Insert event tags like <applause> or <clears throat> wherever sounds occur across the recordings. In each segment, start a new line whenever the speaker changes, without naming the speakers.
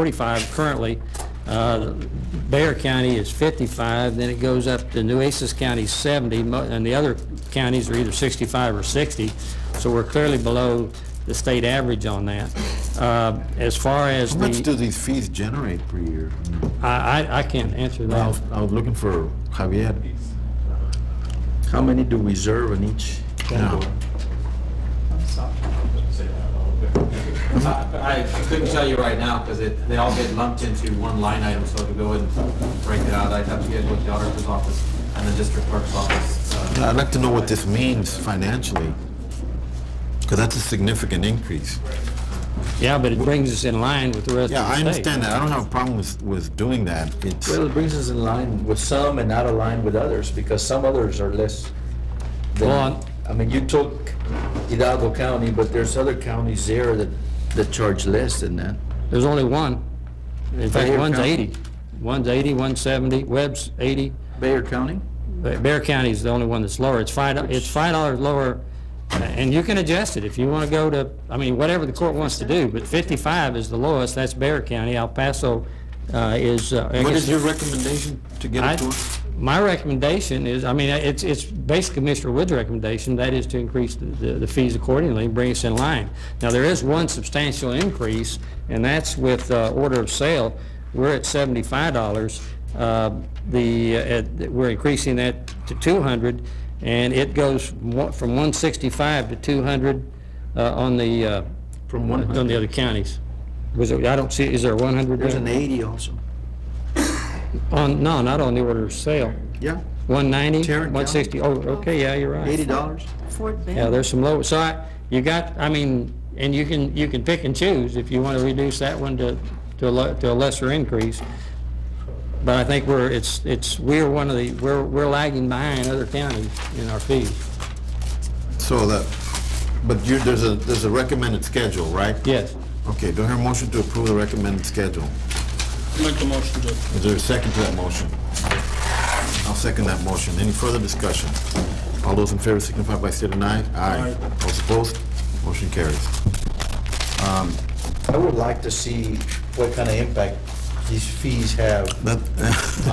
45 currently. Uh, Bear County is 55, then it goes up to Nueces County 70, mo- and the other counties are either 65 or 60, so we're clearly below the state average on that. Uh, As far as
How much do
the,
these fees generate per year?
I I- I can't answer
I
that.
was, I was looking for Javier.
How many do we reserve in each?
Now,
I I couldn't tell you right now, because it, they all get lumped into one line item, so to go and break it out, I'd have to get with the auditor's office and the district clerk's office. uh,
I'd like to know what this means financially, because that's a significant increase.
Yeah, but it brings us in line with the rest of the
Yeah,
state.
I understand that. I don't have a problem with, with doing that. It's,
Well, it brings us in line with some and out of line with others, because some others are less than...
Well, I'm-
I mean, you took Hidalgo County, but there's other counties there that, that charge less than that.
There's only one. In fact,
Bear
one's
County.
80. One's 80, one's 70, Webb's 80,
Bayer County?
Ba- Uh, Bear County is the only one that's lower. It's five, do- it's five dollars lower, uh, and you can adjust it if you want to go to, I mean, whatever the court wants to do, but fifty-five is the lowest, that's Bear County. El Paso uh, is, uh, I
what
guess,
is your recommendation to get
I-
it to us?
my recommendation is, I mean, it's, it's basically Commissioner Wood's recommendation, that is to increase the- the the fees accordingly and bring us in line. Now, there is one substantial increase, and that's with uh, order of sale. We're at seventy-five dollars. The, uh, at- we're increasing that to two hundred, and it goes mo- from one sixty-five to two hundred on the, uh,
From
on
100.
the other counties. Was it, I don't see, is there one hundred?
There's an 80 also.
On, no, not on the order of sale.
Yeah,
190,
Tarrant County.
160, oh, okay, yeah, you're right.
$80.
Fort
Yeah,
Bend.
there's some low, so I, you got, I mean, and you can, you can pick and choose if you want to reduce that one to, to a, le- to a lesser increase. But I think we're, it's, it's, we're one of the, we're, we're lagging behind other counties in our fees.
So that, but you, there's a, there's a recommended schedule, right?
Yes.
Okay, do I hear a motion to approve the recommended schedule?
Make the motion to approve.
Is there a second to that motion? I'll second that motion. Any further discussion? All those in favor signify by state and aye. Aye.
Aye.
All opposed? Motion carries.
I would like to see what kind of impact these fees have
That,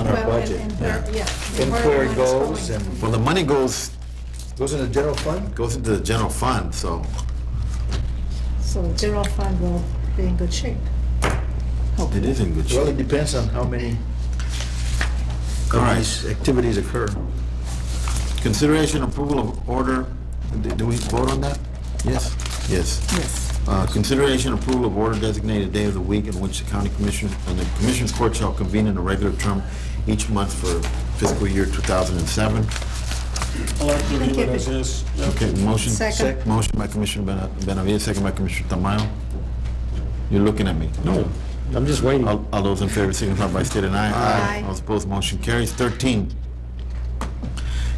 <laughs>
on our
Well, and-
budget.
and where- yeah,
And where it
it's
goes,
going.
and
well, the money goes,
goes in the general fund?
goes into the general fund, so
So the general fund will be in good shape.
it is in good
Well, it
shape.
depends on how many
All
of
right.
these activities occur.
Consideration approval of order, do do we vote on that? Yes? Yes.
Yes.
Uh, Consideration approval of order designated day of the week in which the county commission, and the commission's court shall convene in a regular term each month for fiscal year 2007.
I like to leave
keep
it
it.
as is. Yeah.
Okay, motion?
Second.
sec- Motion by Commissioner Bena- Benavides, second by Commissioner Tamayo. You're looking at me. No.
I'm just waiting.
All all those in favor signify by state and I.
Aye.
All opposed, motion carries. Thirteen,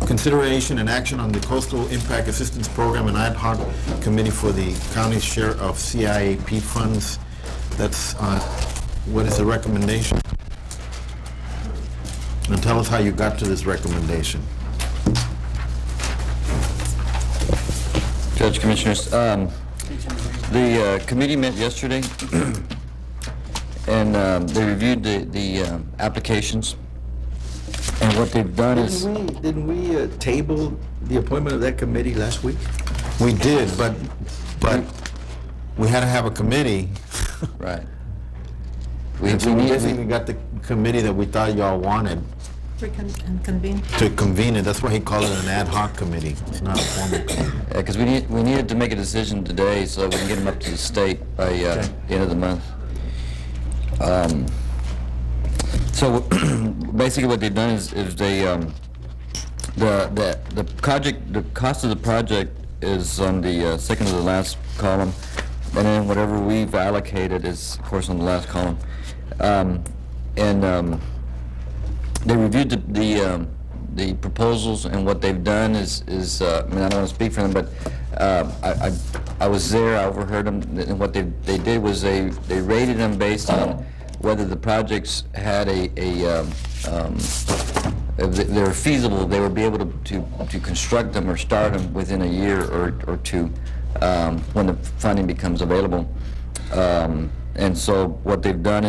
consideration and action on the Coastal Impact Assistance Program and Ad hoc Committee for the County Share of CIAP Funds. That's, uh, what is the recommendation? And tell us how you got to this recommendation.
Judge Commissioners, um, the uh, committee met yesterday, <clears throat> and um, they reviewed the the um, applications, and what they've done is...
Didn't we, didn't we uh, table the appointment of that committee last week?
We did, but, but we had to have a committee.
Right. We
And so
we
we
need,
basically got the committee that we thought y'all wanted
We can and convene.
to convene it. That's why he called it an ad hoc committee. It's not a formal committee.
because we need, we needed to make a decision today, so we can get them up to the state by uh, the end of the month. Um, So <clears throat> basically what they've done is, is they, um, the, the, the project, the cost of the project is on the uh, second to the last column, and then whatever we've allocated is, of course, on the last column. Um, And um, they reviewed the, the, um, the proposals, and what they've done is, is, uh, I mean, I don't want to speak for them, but um, I, I- I was there, I overheard them, and what they, they did was they, they rated them based on whether the projects had a, a, um, um, if they- they're feasible, they would be able to, to, to construct them or start them within a year or, or two, um, when the funding becomes available. Um, And so what they've done